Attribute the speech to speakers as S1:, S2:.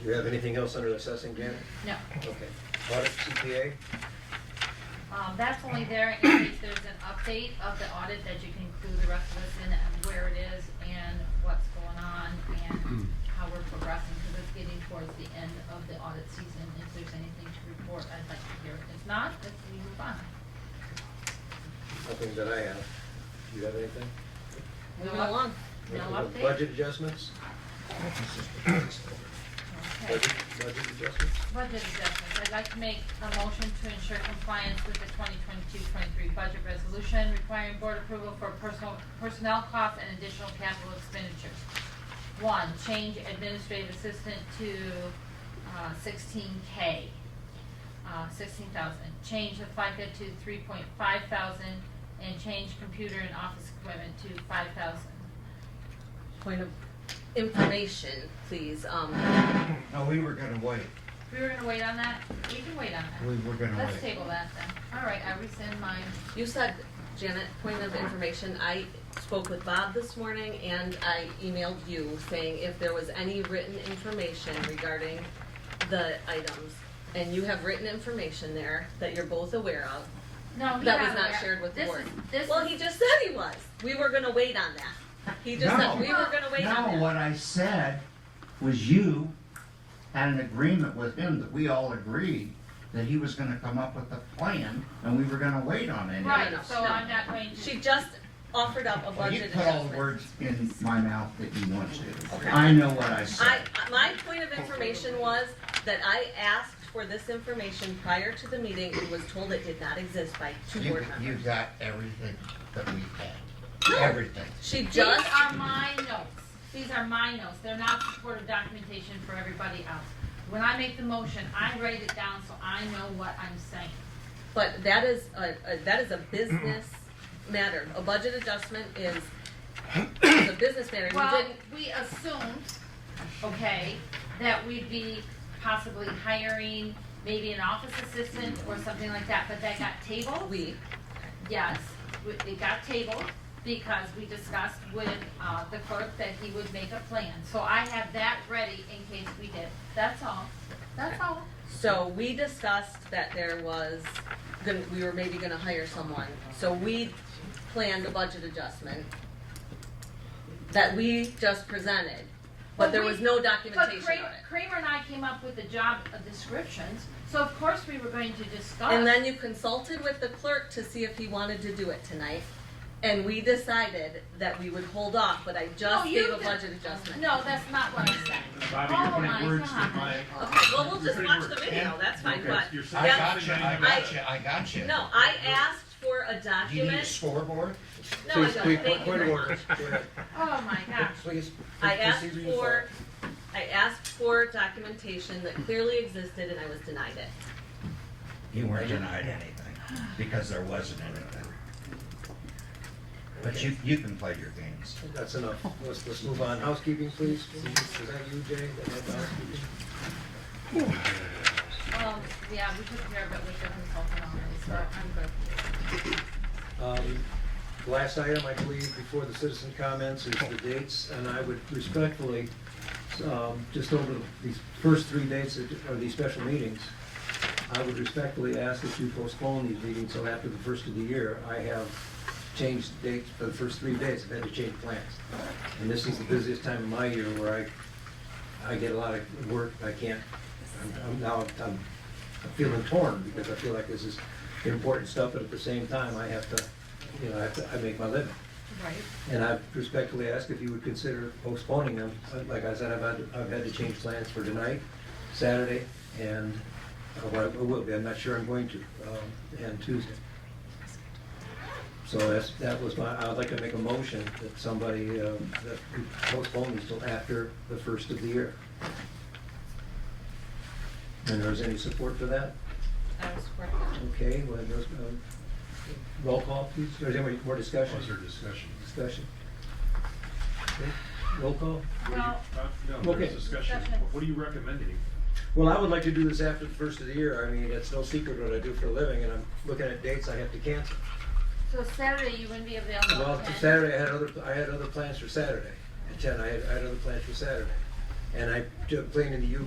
S1: Do you have anything else under assessing, Janet?
S2: No,
S1: Okay. Audit CPA?
S2: um, that's only there in case there's an update of the audit that you can include the rest of us in and where it is and what's going on and how we're progressing, because it's getting towards the end of the audit season. If there's anything to report, I'd like to hear. If not, if we move on.
S1: Nothing that I have. Do you have anything?
S2: Moving along. No update?
S1: Budget adjustments?
S2: Okay.
S1: Budget, budget adjustments?
S2: Budget adjustments, I'd like to make a motion to ensure compliance with the 2022-23 budget resolution requiring board approval for personal, personnel costs and additional capital expenditures. One, change administrative assistant to uh, 16K, uh, 16,000. Change the FICA to 3.5 thousand and change computer and office equipment to 5,000.
S3: Point of information, please. Um,
S4: No, we were gonna wait.
S2: We were gonna wait on that? We can wait on that.
S4: We were gonna
S2: Let's
S4: wait.
S2: table that then. All right, I rescind my
S3: you said, Janet, point of information. I spoke with Bob this morning and I emailed you saying if there was any written information regarding the items. And you have written information there that you're both aware of.
S2: No, he
S3: That was
S2: got
S3: not
S2: it.
S3: shared with the
S2: This
S3: board.
S2: is- This
S3: Well,
S2: is,
S3: he just said he was. We were gonna wait on that. He just said
S4: No.
S3: we were gonna wait on
S4: No,
S3: that.
S4: what I said was you had an agreement with him that we all agreed that he was gonna come up with a plan and we were gonna wait on any of
S2: right,
S3: no,
S4: it.
S2: so
S3: no.
S2: I'm not going to.
S3: She just offered up a
S4: Well, you
S3: budget
S4: put all the
S3: adjustment.
S4: words in my mouth that you want to.
S3: Okay.
S4: I know what I
S3: I,
S4: said.
S3: my point of information was that I asked for this information prior to the meeting and was told it did not exist by two
S4: You,
S3: board
S4: you
S3: members.
S4: got everything that we had, everything.
S3: She
S2: These
S3: just,
S2: are my notes. These are my notes. They're not supportive documentation for everybody else. When I make the motion, I write it down so I know what I'm saying.
S3: but that is, a- a- that is a business matter. A budget adjustment is is a business matter. You
S2: Well,
S3: didn't,
S2: we assumed, okay, that we'd be possibly hiring maybe an office assistant or something like that, but that got tabled.
S3: we,
S2: Yes, we- it got tabled because we discussed with uh, the clerk that he would make a plan. So I have that ready in case we did. That's all. That's all.
S3: so we discussed that there was, gonna- we were maybe gonna hire someone. So we planned a budget adjustment that we just presented, but there was no
S2: But
S3: documentation of it.
S2: Kramer Kramer and I came up with the job uh, descriptions, so of course we were going to discuss.
S3: And then you consulted with the clerk to see if he wanted to do it tonight. And we decided that we would hold off, but I
S2: No,
S3: just
S2: you
S3: gave a
S2: did-
S3: budget adjustment.
S2: No, that's not what I said.
S5: Bobby,
S2: Oh
S5: you're
S2: my
S5: putting words to
S2: God.
S5: my.
S3: Okay, well, we'll
S5: you're
S3: just
S5: putting
S3: watch
S5: words-
S3: the video, that's fine,
S5: Okay,
S3: but,
S5: you're
S4: I
S5: saying
S4: got
S5: something
S4: you, I
S5: I
S4: got you, I got you.
S3: no, I asked for a
S4: Do you need a
S3: document.
S4: scoreboard?
S3: No,
S1: Please,
S3: I
S1: please,
S3: don't, thank you
S1: point of
S3: very much.
S1: order. Go ahead.
S2: Oh my gosh.
S1: Please.
S3: I
S1: proceed
S3: asked
S1: with your
S3: for,
S1: thought.
S3: I asked for documentation that clearly existed and I was denied it.
S4: You weren't denied anything, because there wasn't anything. But you, you can play your games.
S1: That's enough. Let's, let's move on. Housekeeping, please. Is that you, Jay? That had the housekeeping?
S2: Well, yeah, we took care of it with the consultant already, so I'm good.
S1: Um, Last item, I believe, before the citizen comments is the dates, and I would respectfully, um, just over these first three dates that are these special meetings, I would respectfully ask that you postpone these meetings till after the first of the year. I have changed dates for the first three days, I've had to change plans. And this is the busiest time of my year where I, I get a lot of work, I can't, I'm- I'm now, I'm I'm feeling torn because I feel like this is important stuff, but at the same time, I have to, you know, I have to, I make my living.
S2: Right.
S1: And I respectfully ask if you would consider postponing them. Like I said, I've had, I've had to change plans for tonight, Saturday, and, uh, well, I will be, I'm not sure I'm going to, um, and Tuesday. So that's, that was my, I would like to make a motion that somebody, uh, that we postpone these till after the first of the year. And there's any support for that?
S2: I was working.
S1: Okay, well, there's, um, roll call, please, or is there any more discussion?
S5: Was there discussion?
S1: Discussion. Okay, Roll call?
S2: Well,
S5: No,
S1: Okay.
S5: there's discussion.
S2: Discussion.
S5: What are you recommending?
S1: Well, I would like to do this after the first of the year, I mean, it's no secret what I do for a living, and I'm looking at dates I have to cancel.
S2: so Saturday you wouldn't be available.
S1: Well,
S2: okay?
S1: Saturday, I had other, I had other plans for Saturday, at ten, I had, I had other plans for Saturday. And I, ju- playing in the U